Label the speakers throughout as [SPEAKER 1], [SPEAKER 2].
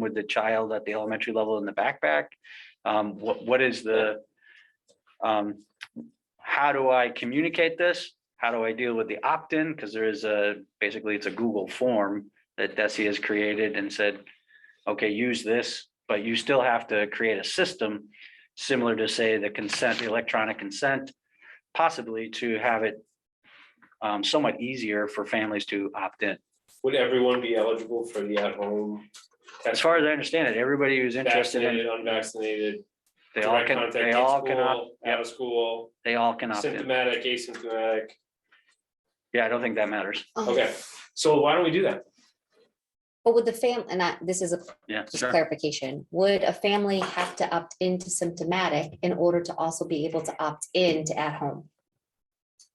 [SPEAKER 1] with the child at the elementary level in the backpack? Um, what, what is the, um, how do I communicate this? How do I deal with the opt-in? Because there is a, basically it's a Google form that Desi has created and said, okay, use this, but you still have to create a system similar to say the consent, the electronic consent, possibly to have it um, somewhat easier for families to opt in.
[SPEAKER 2] Would everyone be eligible for the at-home?
[SPEAKER 1] As far as I understand it, everybody who's interested in,
[SPEAKER 2] Vaccinated, unvaccinated,
[SPEAKER 1] they all
[SPEAKER 2] direct
[SPEAKER 1] can,
[SPEAKER 2] contact
[SPEAKER 1] they
[SPEAKER 2] in
[SPEAKER 1] all can, opt-
[SPEAKER 2] school, out of school,
[SPEAKER 1] they all can opt in.
[SPEAKER 2] symptomatic, asymptomatic.
[SPEAKER 1] Yeah, I don't think that matters.
[SPEAKER 2] Okay, so why don't we do that?
[SPEAKER 3] Um, But would the fam, and I, this is a
[SPEAKER 1] Yeah,
[SPEAKER 3] just
[SPEAKER 1] sure.
[SPEAKER 3] clarification, would a family have to opt into symptomatic in order to also be able to opt in to at home?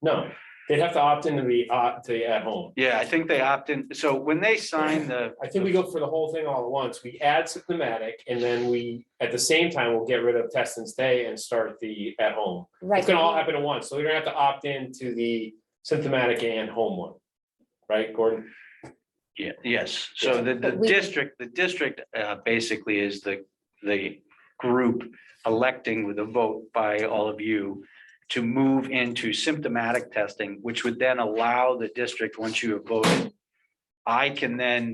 [SPEAKER 2] No, they'd have to opt into the, uh, to the at-home.
[SPEAKER 1] Yeah, I think they opt in. So when they sign the,
[SPEAKER 2] I think we go for the whole thing all at once. We add symptomatic and then we, at the same time, we'll get rid of test and stay and start the at-home.
[SPEAKER 3] Right.
[SPEAKER 2] It's gonna all happen at once, so we don't have to opt into the symptomatic and home one. Right, Gordon?
[SPEAKER 1] yeah, yes, so the, the
[SPEAKER 3] But we-
[SPEAKER 1] district, the district uh, basically is the, the group electing with a vote by all of you to move into symptomatic testing, which would then allow the district, once you have voted, I can then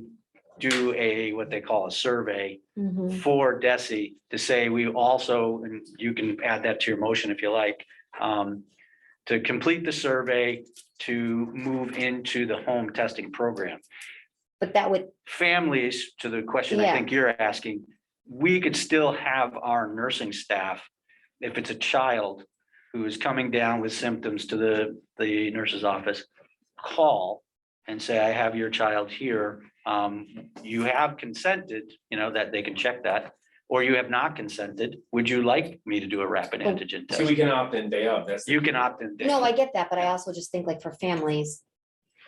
[SPEAKER 1] do a, what they call a survey
[SPEAKER 3] Mhm.
[SPEAKER 1] for Desi to say we also, and you can add that to your motion if you like, um, to complete the survey to move into the home testing program.
[SPEAKER 3] But that would,
[SPEAKER 1] Families, to the question I
[SPEAKER 3] Yeah.
[SPEAKER 1] think you're asking, we could still have our nursing staff, if it's a child who is coming down with symptoms to the, the nurse's office, call and say, I have your child here. Um, you have consented, you know, that they can check that, or you have not consented. Would you like me to do a rapid
[SPEAKER 3] Well,
[SPEAKER 1] antigen
[SPEAKER 2] See, we
[SPEAKER 1] test?
[SPEAKER 2] can opt in day of, that's. the-
[SPEAKER 1] You can opt in. Dave.
[SPEAKER 3] no, I get that, but I also just think like for families,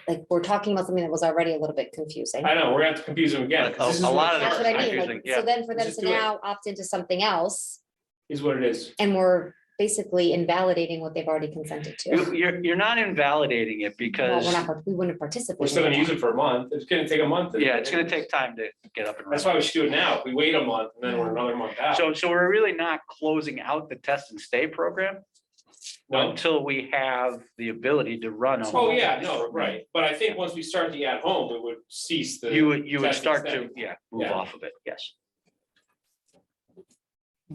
[SPEAKER 3] like we're talking about something that was already a little bit confusing.
[SPEAKER 2] I know, we're gonna have to confuse them again. 'cause this is
[SPEAKER 1] A- a lot of
[SPEAKER 2] what-
[SPEAKER 3] That's what I mean,
[SPEAKER 1] confusing,
[SPEAKER 3] like,
[SPEAKER 1] yeah.
[SPEAKER 3] so then for them
[SPEAKER 2] Just
[SPEAKER 3] to
[SPEAKER 2] do it.
[SPEAKER 3] now opt into something else,
[SPEAKER 2] Is what it is.
[SPEAKER 3] and we're basically invalidating what they've already consented to.
[SPEAKER 1] You- You're, you're not invalidating it
[SPEAKER 3] Well,
[SPEAKER 1] because,
[SPEAKER 3] we're not, part- we wouldn't participate.
[SPEAKER 2] We're still
[SPEAKER 3] in
[SPEAKER 2] gonna use
[SPEAKER 3] that.
[SPEAKER 2] it for a month. It's gonna take a month.
[SPEAKER 1] yeah, it's gonna take time to get up and running.
[SPEAKER 2] That's why we should do it now. If We wait a month and then we're another month out.
[SPEAKER 1] So, so we're really not closing out the test and stay program
[SPEAKER 2] No.
[SPEAKER 1] until we have the ability to run. a
[SPEAKER 2] Oh,
[SPEAKER 1] home
[SPEAKER 2] yeah,
[SPEAKER 1] test
[SPEAKER 2] no,
[SPEAKER 1] program.
[SPEAKER 2] right. But I think once we start the at home, we would cease the.
[SPEAKER 1] You would, you would
[SPEAKER 2] test and
[SPEAKER 1] start
[SPEAKER 2] stay.
[SPEAKER 1] to, yeah, move
[SPEAKER 2] Yeah.
[SPEAKER 1] off of it, yes.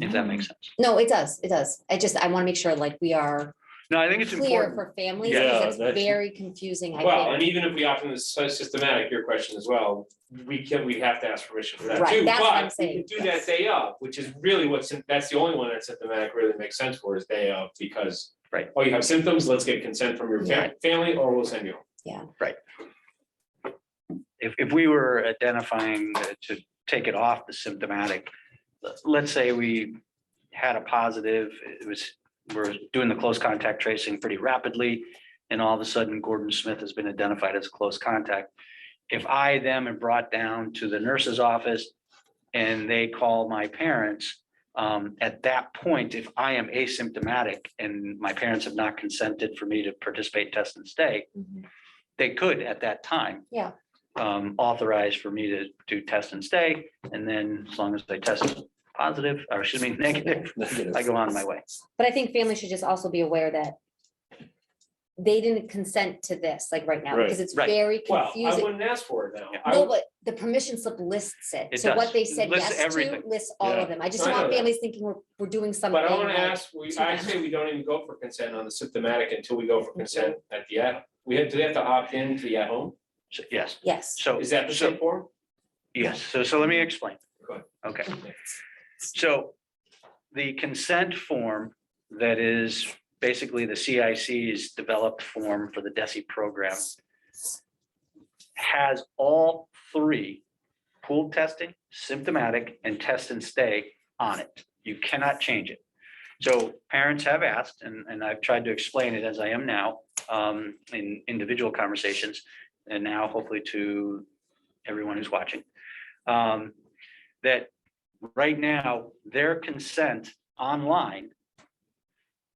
[SPEAKER 1] If
[SPEAKER 3] Mm-hmm.
[SPEAKER 1] that makes sense.
[SPEAKER 3] No, it does, it does. I just, I want to make sure like we are
[SPEAKER 1] No, I think it's
[SPEAKER 3] clear
[SPEAKER 1] important.
[SPEAKER 3] for families,
[SPEAKER 2] Yeah,
[SPEAKER 3] because it's
[SPEAKER 2] that's-
[SPEAKER 3] very confusing,
[SPEAKER 2] Well,
[SPEAKER 3] I
[SPEAKER 2] and even if we opt in this systematic, your question as well, we can, we'd have to ask permission for that
[SPEAKER 3] Right,
[SPEAKER 2] too.
[SPEAKER 3] that's what I'm
[SPEAKER 2] But we
[SPEAKER 3] saying,
[SPEAKER 2] could Do that
[SPEAKER 3] yes.
[SPEAKER 2] day of, which is really what's, that's the only one that symptomatic really makes sense for is day of because.
[SPEAKER 1] Right.
[SPEAKER 2] Oh, you have symptoms, let's get consent from your fam- family or we'll send you. home.
[SPEAKER 1] If, if we were identifying uh, to take it off the symptomatic, let- let's say we had a positive, it was, we're doing the close contact tracing pretty rapidly. And all of a sudden Gordon Smith has been identified as a close contact. If I them am brought down to the nurse's office and they call my parents, um, at that point, if I am asymptomatic and my parents have not consented for me to participate, test and stay,
[SPEAKER 3] think.
[SPEAKER 1] they could at that time.
[SPEAKER 3] Yeah.
[SPEAKER 1] Um, authorize for me to do test and stay, and then as long as they test positive, or excuse me, negative, I go on my way.
[SPEAKER 3] But I think families should just also be aware that they didn't consent to this, like right now, because it's
[SPEAKER 1] Right.
[SPEAKER 3] very
[SPEAKER 2] Well, I
[SPEAKER 3] confusing.
[SPEAKER 2] wouldn't ask for it now. I
[SPEAKER 3] No,
[SPEAKER 2] would-
[SPEAKER 3] but the permission slip lists it,
[SPEAKER 1] It
[SPEAKER 3] so
[SPEAKER 1] does.
[SPEAKER 3] what they
[SPEAKER 1] It
[SPEAKER 3] said
[SPEAKER 1] lists
[SPEAKER 3] yes to
[SPEAKER 1] everything.
[SPEAKER 3] lists all
[SPEAKER 2] Yeah.
[SPEAKER 3] of them. I just
[SPEAKER 2] I know
[SPEAKER 3] want
[SPEAKER 2] that.
[SPEAKER 3] families thinking we're, we're doing something.
[SPEAKER 2] But I wanna
[SPEAKER 3] right.
[SPEAKER 2] ask, we, I
[SPEAKER 3] symptomatic.
[SPEAKER 2] say we don't even go for consent on the symptomatic until we go for consent at the at, we have, do they have to opt in to the at home?
[SPEAKER 1] So, yes,
[SPEAKER 3] Yes,
[SPEAKER 1] so.
[SPEAKER 2] Is that the
[SPEAKER 1] so-
[SPEAKER 2] same form?
[SPEAKER 1] Yes, so, so let me explain.
[SPEAKER 2] Go ahead.
[SPEAKER 1] Okay. So the consent form that is basically the CIC's developed form for the DESI program has all three, pool testing, symptomatic, and test and stay on it. You cannot change it. So parents have asked, and, and I've tried to explain it as I am now um, in individual conversations, and now hopefully to everyone who's watching. um, That right now, their consent online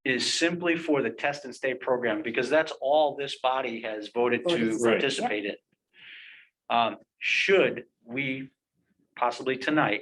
[SPEAKER 1] is simply for the test and stay program, because that's all this body has voted
[SPEAKER 3] Voted.
[SPEAKER 1] to
[SPEAKER 3] Right.
[SPEAKER 1] participate in. Um, Should we possibly tonight,